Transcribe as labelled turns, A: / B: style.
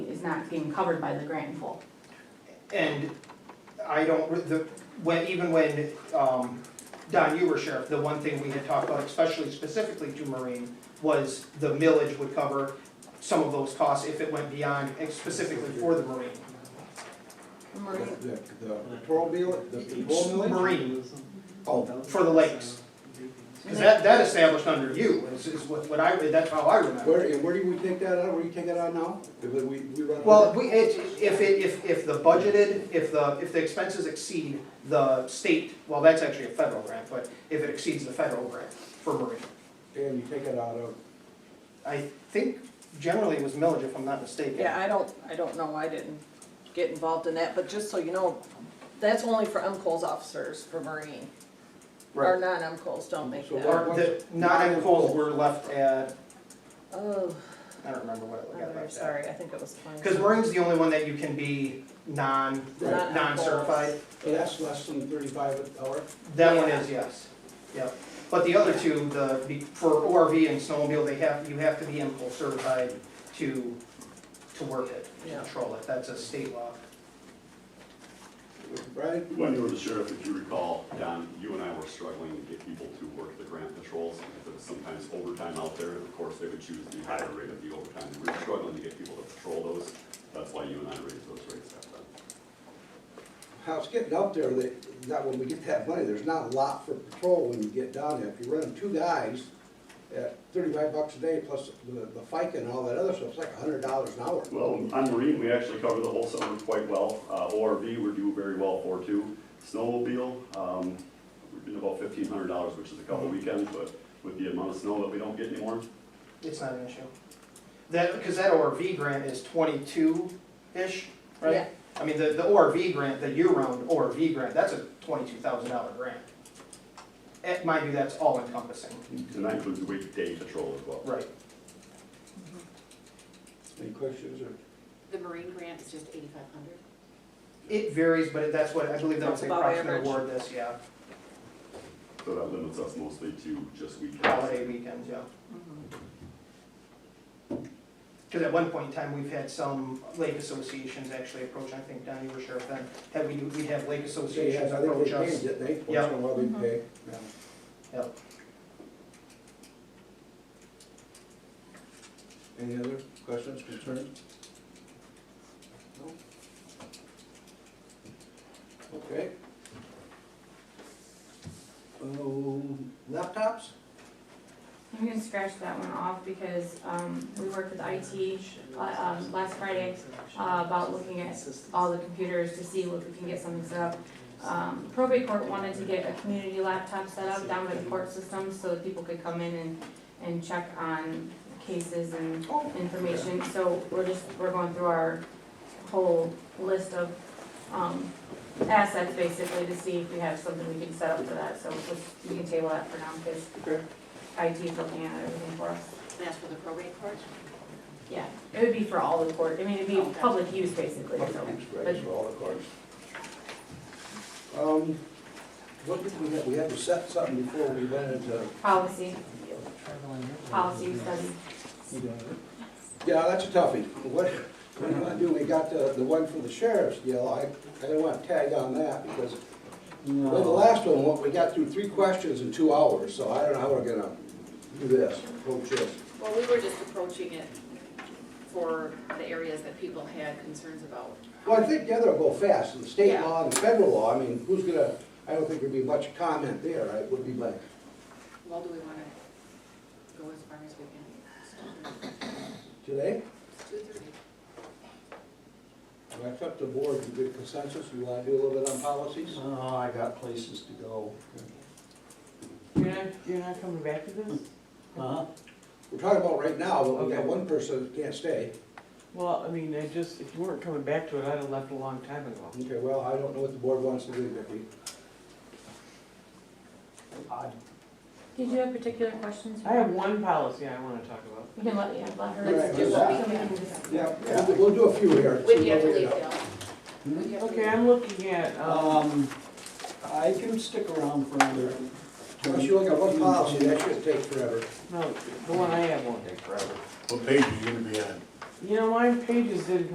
A: is not being covered by the grant in full.
B: And I don't, re- the, when, even when, um, Don, you were sheriff, the one thing we had talked about, especially specifically to Marine, was the millage would cover some of those costs if it went beyond, eh, specifically for the Marine.
A: Maria,
C: The, the- the pro bill, the pro millage?
B: Marine,
C: Oh,
B: for the lakes. Cause that, that established under you, is, is what, what I, that's how I remember.
C: where, and where do we take that out, where do you take that out now? Because we, we run.
B: Well, we, it, if it, if, if the budgeted, if the, if the expenses exceed the state, well, that's actually a federal grant, but if it exceeds the federal grant for Marine.
C: And you take it out of,
B: I think generally it was millage, if I'm not mistaken.
D: Yeah, I don't, I don't know, I didn't get involved in that, but just so you know, that's only for MCOs officers for Marine. Our
B: Right.
D: non-MCOs don't make
C: So
D: that.
C: what-
B: Or the, not in Coles, we're left at,
D: Oh,
B: I don't remember what it got
D: I'm
B: left at.
D: Oh, sorry, I think it was twenty.
B: Because Marine's the only one that you can be non,
C: Right.
D: Non-MCOs.
B: non-certified.
C: so that's less than thirty-five an hour.
B: That one is yes, yep. But the other two, the, the- for ORV and snowmobile, they have, you have to be impulse certified to, to work it, to
D: Yeah.
B: control it. That's a state law.
C: Right?
E: When you were the sheriff, if you recall, Don, you and I were struggling to get people to work the grant patrols. There was sometimes overtime out there, and of course, they would choose the higher rate of the overtime. We were struggling to get people to patrol those. That's why you and I raised those rates back then.
C: How it's getting up there, that, that when we get that money, there's not a lot for patrol when you get down there. If you run two guys at thirty-five bucks a day plus the, the FICA and all that other stuff, it's like a hundred dollars an hour.
E: Well, on Marine, we actually cover the whole summer quite well. Uh, ORV, we're doing very well for too. Snowmobile, um, we've been about fifteen hundred dollars, which is a couple weekends, but with the amount of snow that we don't get anymore,
B: It's not an issue. That, because that ORV grant is twenty-two-ish, right?
D: Yeah.
B: I mean, the, the ORV grant, the year-round ORV grant, that's a twenty-two thousand dollar grant. At my view, that's all encompassing.
E: and that includes weekday patrol as well.
B: Right.
C: Any questions or?
F: The Marine grant is just eighty-five hundred?
B: It varies, but that's what, I believe that was the
D: That's about average.
B: approximate award this, yeah,
E: So that limits us mostly to just weekends.
B: holiday weekends, yeah.
F: mm-hmm.
B: Because at one point in time, we've had some lake associations actually approach, I think, Don, you were sheriff then, had we, we have lake
C: They
B: associations
C: had, I think
B: approach
C: they paid,
B: us.
C: didn't they? Once in
B: Yeah.
C: a while they pay. Yeah.
B: Yep.
C: Any other questions, concerns? No? Okay. Um, Laptops?
A: I'm gonna scratch that one off because, um, we worked with IT, uh, um, last Friday, uh, about looking at all the computers to see what we can get something set up. Um, probate court wanted to get a community laptop set up down by the court system so that people could come in and, and check on cases and
C: Oh.
A: information. So we're just, we're going through our whole list of, um, assets basically to see if we have something we can set up for that. So just, we can table that for now because
C: Okay.
A: IT's looking at everything for us.
F: That's for the probate court?
A: Yeah, it would be for all the court, I mean, it'd be public use basically, so.
C: Right, for all the cards. Um, what did we have, we had to set something before we went into.
A: Policy, policy study.
C: Yeah, that's a toughie. What, what do you wanna do? We got the, the one for the sheriff's deal. I, I don't wanna tag on that because, well, the last one, what, we got through three questions in two hours, so I don't know how we're gonna do this, Oh, approach this.
F: Well, we were just approaching it for the areas that people had concerns about.
C: Well, I think the other will go fast, the state
F: Yeah.
C: law and the federal law, I mean, who's gonna, I don't think there'd be much comment there, right? Would be like,
F: Well, do we wanna go as far as we can?
C: today?
F: It's two thirty.
C: I thought the board, you good consensus, you wanna do a little bit on policies?
G: Oh, I got places to go.
H: You're not, you're not coming back to this?
G: Huh?
C: We're talking about right now, but we got
H: Okay.
C: one person that can't stay.
H: Well, I mean, I just, if you weren't coming back to it, I'd have left a long time ago.
C: Okay, well, I don't know what the board wants to do, Vicki.
G: I-
A: Did you have particular questions?
H: I have one policy I wanna talk about.
A: We can let, yeah, let her.
C: Let's
F: do what we
A: So can
F: can.
A: just-
C: Yeah, we'll- we'll do a few here.
F: When do you
C: see
F: have to
C: what we
F: leave,
C: end up.
F: Dale? When do you have to
H: Okay,
F: leave?
H: I'm looking at,
I: Uh,
H: um,
G: Um, I can stick around for another.
C: Unless you look at one policy, that should take forever.
H: no, the one I have won't take forever.
I: What page are you gonna be on?
H: You know, my pages did